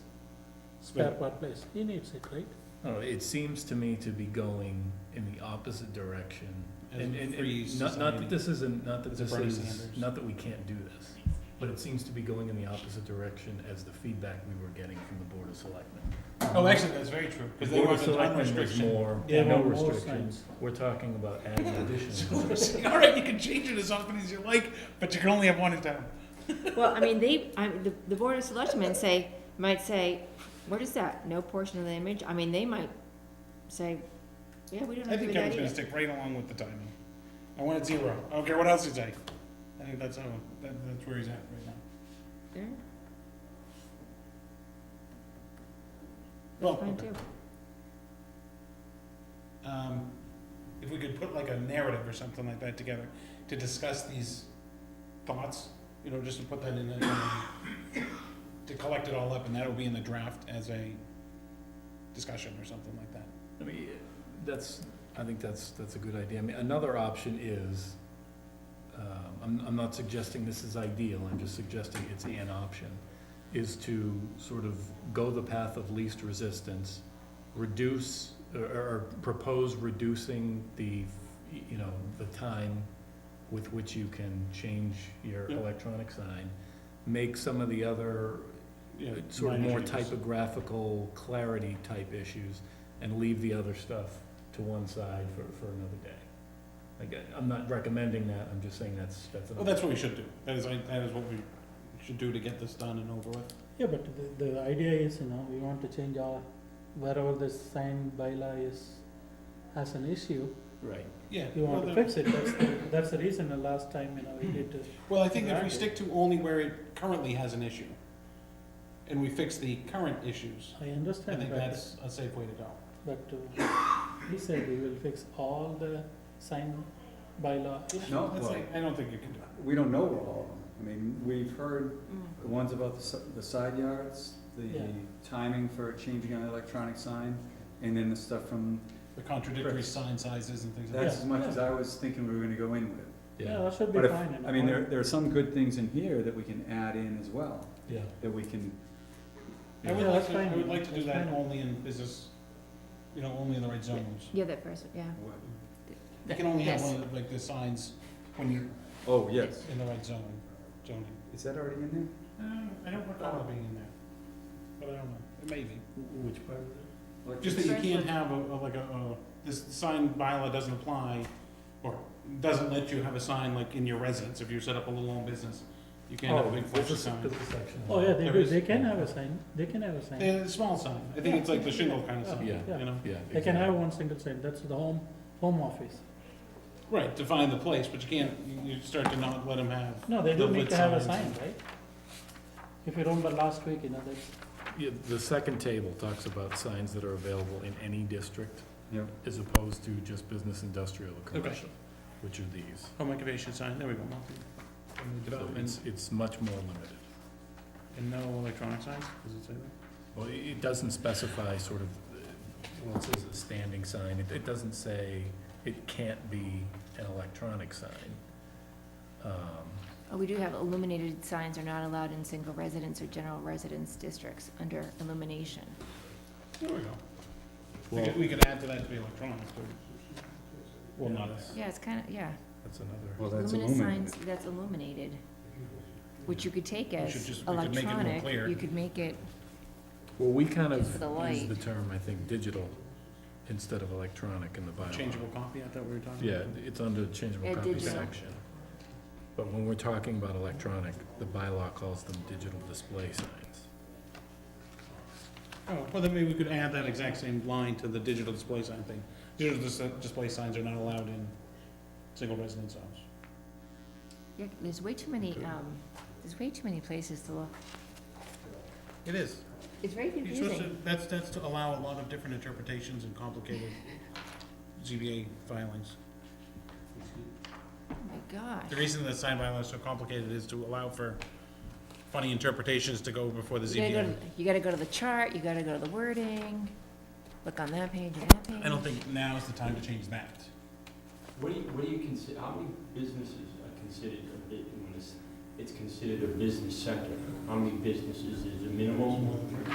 spare part place, he needs it, right? I don't know, it seems to me to be going in the opposite direction. And, and, and not, not that this isn't, not that As a this free is, Sanders. not that we can't do this, but it seems to be going in the opposite direction as the feedback we were getting from the Board of Selectmen. Oh, actually, that's very true, The because they Board of want a time Selectmen was restriction. more, They no want more restriction, signs. we're talking about adding So we're additional. saying, all right, you can change it as often as you like, but you can only have one in town. Well, I mean, they, I, the, the board of selectmen say, might say, what is that? No portion of the image? I mean, they might say, yeah, we don't I think agree with that Kevin's gonna either. stick right along with the timing. I want it zero, I don't care what else you say. I think that's how, that, that's where he's at right now. Yeah, Well, Fine okay. too. um, if we could put like a narrative or something like that together to discuss these thoughts, you know, just to put that in, a- in a- to collect it all up, and that'll be in the draft as a discussion or something like that. I mean, that's, I think that's, that's a good idea. I mean, another option is, um, I'm, I'm not suggesting this is ideal, I'm just suggesting it's an option, is to sort of go the path of least resistance, reduce, or, or propose reducing the, you know, the time with which you can change your Yeah. electronic sign, make some of the other Yeah, sort of more typographical clarity type issues and leave the other stuff to one side for, for another day. Like, I- I'm not recommending that, I'm just saying that's, Oh, that's. an Well, that's what we should do. That is, I- that is what we should do to get this done and over with. Yeah, but the, the idea is, you know, we want to change all, wherever this sign bylaw is, has an issue, Right. Yeah. you well, want to the- fix it, that's, the- that's the reason the last time, you know, we did, uh, Well, I think if we Right. stick to only where it currently has an issue, and we fix the current issues, I I understand, think but, that's a safe way to go. but uh, he said we will fix all the sign bylaw issues. No, That's well- like- I don't think you can do it. We don't know where all of them, I mean, we've heard Mm. the ones about the si- the side yards, the Yeah. timing for changing an electronic sign, and then the stuff from, The contradictory Correct. sign sizes and things like that's that. as much as I was thinking we were gonna go in with. Yeah, Yeah, that should be But if, fine, you know. I mean, there, there are some good things in here that we can add in as well, yeah. that we can, I would Yeah, like that's to, I fine. would like to do That's that fine. only in business, you know, only in the right zones. Yeah, that person, yeah. what- You can only have Yes. one of, like, the signs when you're oh, yes, in the right zone, zoning. is that already in there? I don't recall it being in there, but I don't know, it may be. Which part? Just that you can't have a, a- like a, a, this sign bylaw doesn't apply, or doesn't let you have a sign like in your residence, if you set up a little own business, you can't have a big flashy sign. Oh, yeah, they There do, is- they can have a sign, they can have a sign. Eh, A small sign, I think it's like the shingle kind of sign, Yeah. you know? Yeah. They can have one single sign, that's the home, home office. Right, define the place, but you can't, you- you start to not let them have. No, they the do need lit to have a sign, signs. right? If you remember last week, you know, that's, Yeah, the second table talks about signs that are available in any district Yep, as opposed to just business, industrial, or commercial, which are these. Home occupation sign, there we go. And So the Development, it's, it's much more limited. and no electronic signs, does it say that? Well, it- it doesn't specify sort of, uh, well, it says a standing sign, it, it doesn't say it can't be an electronic sign. Um, Oh, we do have illuminated signs are not allowed in single residence or general residence districts under illumination. There we go. We Well, could, we could add to that to be electronic, too. well, Yeah, not, that's- Yeah, it's kind of, yeah. that's another, well, that's Luminous illuminated. signs, that's illuminated, which you could take We as should just- we could make it more electronic. clear. You could make it, well, we kind of Just for the use light. the term, I think, digital instead of electronic in the bylaw. Changeable copy, I thought we were talking. Yeah, it's under the changeable Yeah, copy digital. section. But when we're talking about electronic, the bylaw calls them digital display signs. Oh, well, then maybe we could add that exact same line to the digital display sign thing. Digital dis- display signs are not allowed in single residence zones. yeah, there's way too many, um, there's way too many places to look. It is. It's very You're supposed confusing. to, that's, that's to allow a lot of different interpretations and complicated ZBA filings. Oh, my gosh. The reason the sign bylaw is so complicated is to allow for funny interpretations to go before the You gotta go ZBA. to, you gotta go to the chart, you gotta go to the wording, look on that page and that page. I don't think now is the time to change that. What do you, what do you consider, how many businesses are considered, a bu- when it's, it's considered a business sector? How many businesses is a minimum?